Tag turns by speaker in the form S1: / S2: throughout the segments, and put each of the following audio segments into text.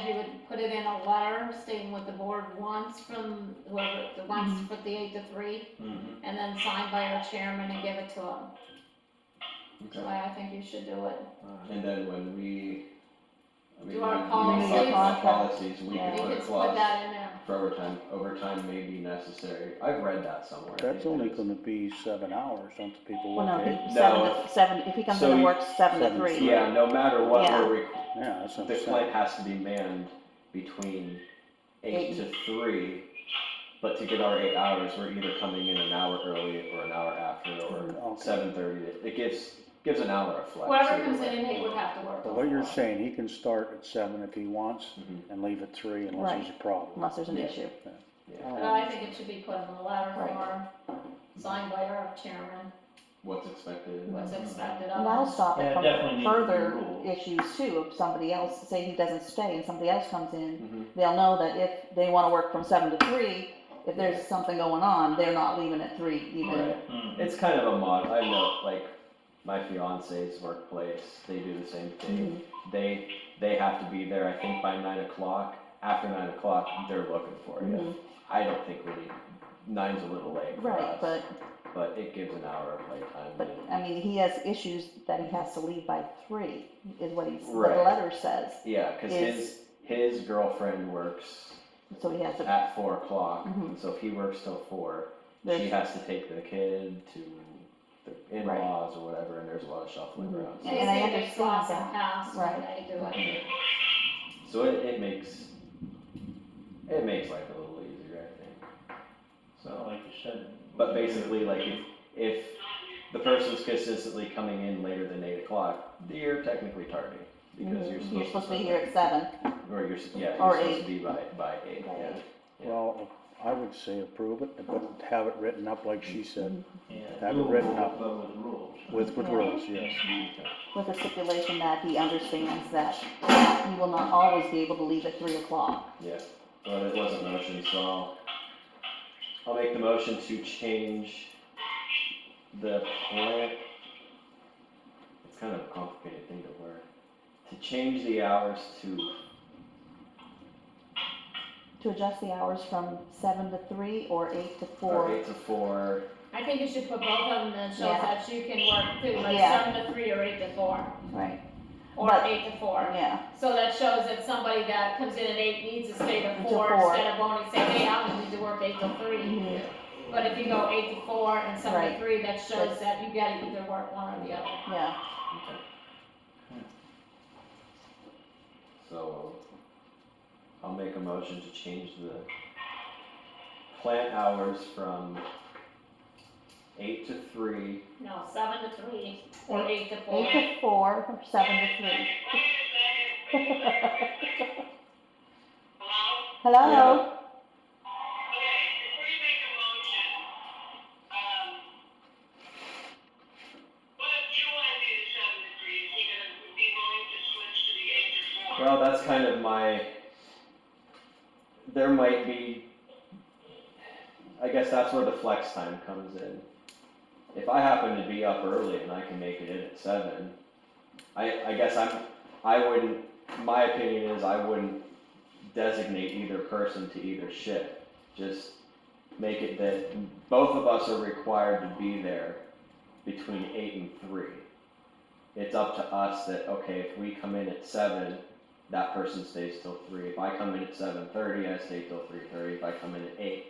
S1: it in a letter stating what the board wants from whoever, the
S2: Mm-hmm.
S1: wants for the eight to three,
S3: Mhm.
S1: and then signed by our chairman and give it to him. So
S3: Okay.
S1: I I think you should do it.
S3: And then when we. I mean,
S1: Do our
S3: when we talk
S1: policies.
S3: about Policies, we
S1: We
S3: can put a
S1: could put
S3: clause
S1: that in there.
S3: for overtime, overtime may be necessary, I've read that somewhere. I
S4: That's
S3: think it
S4: only
S3: is.
S4: gonna be seven hours, don't the people
S2: Well,
S4: work
S2: no,
S4: eight?
S2: he-
S3: No.
S2: seven, to- seven, if he comes in
S3: So
S2: and
S3: you-
S2: works seven to
S4: seven to
S2: three.
S3: Yeah, no matter what,
S2: Yeah.
S3: we're, requ-
S4: Yeah, that's what
S3: the
S4: I'm
S3: plant
S4: saying.
S3: has to be manned between eight
S2: Eight.
S3: to three. But to get our eight hours, we're either coming in an hour early or an hour after or
S4: Okay.
S3: seven thirty, it gives, gives an hour of flex.
S1: Whoever
S3: either
S1: comes
S3: way.
S1: in, he would have to work.
S4: But what you're saying, he can start at seven if he wants
S3: Mhm.
S4: and leave at three unless
S2: Right.
S4: there's a problem.
S2: Unless there's an
S3: Yeah.
S2: issue.
S3: Yeah.
S1: But I think it should be put in the letter
S2: Right.
S1: form, signed by our chairman,
S3: What's expected.
S1: what's
S4: Mm-hmm.
S1: expected
S2: And that'll
S1: of us.
S2: stop
S5: Yeah,
S2: it
S5: it definitely
S2: from
S5: needs to be
S2: further
S5: ruled.
S2: issues too, if somebody else, say he doesn't stay and somebody else comes
S4: Mm-hmm.
S2: in,
S3: Mhm.
S2: they'll know that if they wanna work from seven to three, if there's something going on, they're not leaving at three even.
S3: Right.
S5: Mm.
S3: It's kind of a mod, I know, like, my fiance's workplace, they do the same thing.
S2: Mhm.
S3: They, they have to be there, I think by nine o'clock, after nine o'clock, they're looking for you.
S2: Mhm.
S3: I don't think we need, nine's a little late for
S2: Right,
S3: us,
S2: but,
S3: but it gives an hour of playtime.
S2: but, I mean, he has issues that he has to leave by three, is what he's, the
S3: Right.
S2: letter says,
S3: Yeah, cause his, his girlfriend works
S2: so he has to,
S3: at four o'clock,
S2: Mhm.
S3: and so if he works till four, she
S2: there's,
S3: has to take the kid to the in-laws or whatever, and there's a lot of shuffling
S2: Mhm.
S3: around. so-
S1: They
S2: And I
S1: say there's
S2: understand
S1: slots and
S2: that.
S1: paths when
S2: Right.
S1: they do it.
S3: So it, it makes, it makes life a little easier, I think.
S5: So
S3: So,
S5: like you said.
S3: but basically, like, if, if the person's consistently coming in later than eight o'clock, you're technically tardy. Because you're supposed to.
S2: Mm-hmm. you're supposed to be here at seven.
S3: Or you're, s- yeah,
S2: or
S3: you're supposed
S2: eight.
S3: to be by, by eight,
S2: By
S3: yeah.
S2: eight.
S4: Well, I would say approve it, but have it written up like she said,
S5: Yeah,
S4: Have it written
S5: doable,
S4: up.
S5: But with rules.
S4: with, with
S2: Yeah.
S4: rules, yes.
S2: with a stipulation that he understands that he will not always be able to leave at three o'clock.
S3: Yeah, well, it was a motion, so I'll, I'll make the motion to change the plant. It's kind of a complicated thing to learn, to change the hours to,
S2: To adjust the hours from seven to three or eight to
S3: or
S2: four.
S3: eight to four,
S1: I think you should put both of them, then shows
S2: Yeah.
S1: that you can work too, like
S2: Yeah.
S1: seven to three or eight to four,
S2: Right,
S1: or
S2: But-
S1: eight to four.
S2: yeah,
S1: So that shows that somebody that comes in at eight needs to stay to
S2: Until
S1: four
S2: four.
S1: instead of only saying, hey, I'm gonna need to work eight to three.
S2: mhm,
S1: But if you go eight to four and seven to
S2: Right.
S1: three, that shows
S2: That's-
S1: that you gotta either work one or the other.
S2: yeah.
S3: okay. So, I'll make a motion to change the plant hours from eight to three,
S1: No, seven to three or eight to four.
S2: Eight to four or seven to three. Hello?
S3: Yeah.
S6: Okay, before you make a motion, um, what if you wanna do the seven to three, is he gonna be willing to switch to the eight to four?
S3: Well, that's kind of my, there might be, I guess that's where the flex time comes in. If I happen to be up early and I can make it in at seven, I, I guess I'm, I wouldn't, my opinion is I wouldn't designate either person to either shift. Just make it that both of us are required to be there between eight and three. It's up to us that, okay, if we come in at seven, that person stays till three. If I come in at seven thirty, I stay till three thirty. If I come in at eight,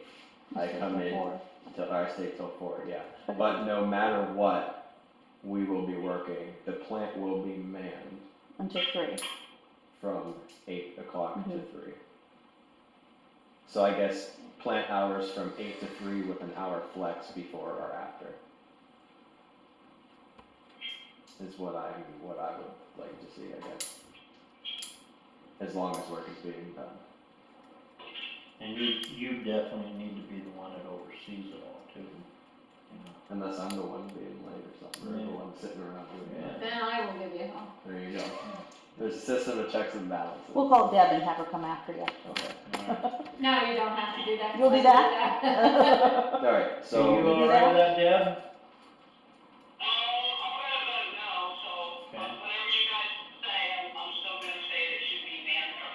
S3: I come in
S2: Four.
S3: till, or I stay till four, yeah.
S2: But-
S3: But no matter what, we will be working, the plant will be manned
S2: Until three.
S3: from eight o'clock to
S2: Mhm.
S3: three. So I guess plant hours from eight to three with an hour flex before or after. Is what I, what I would like to see, I guess. As long as work is being done.
S5: And you, you definitely need to be the one that oversees it all too. you
S3: Unless I'm the one being late or something, or the
S5: Yeah.
S3: one sitting around doing
S5: know.
S3: that.
S1: Then I will give you home.
S3: There you go. There's a system of checks and balances.
S2: We'll call Deb and have her come after you.
S3: Okay.
S5: Alright.
S1: No, you don't have to do that.
S2: You'll do that?
S3: Alright, so.
S5: You all right with that, Deb?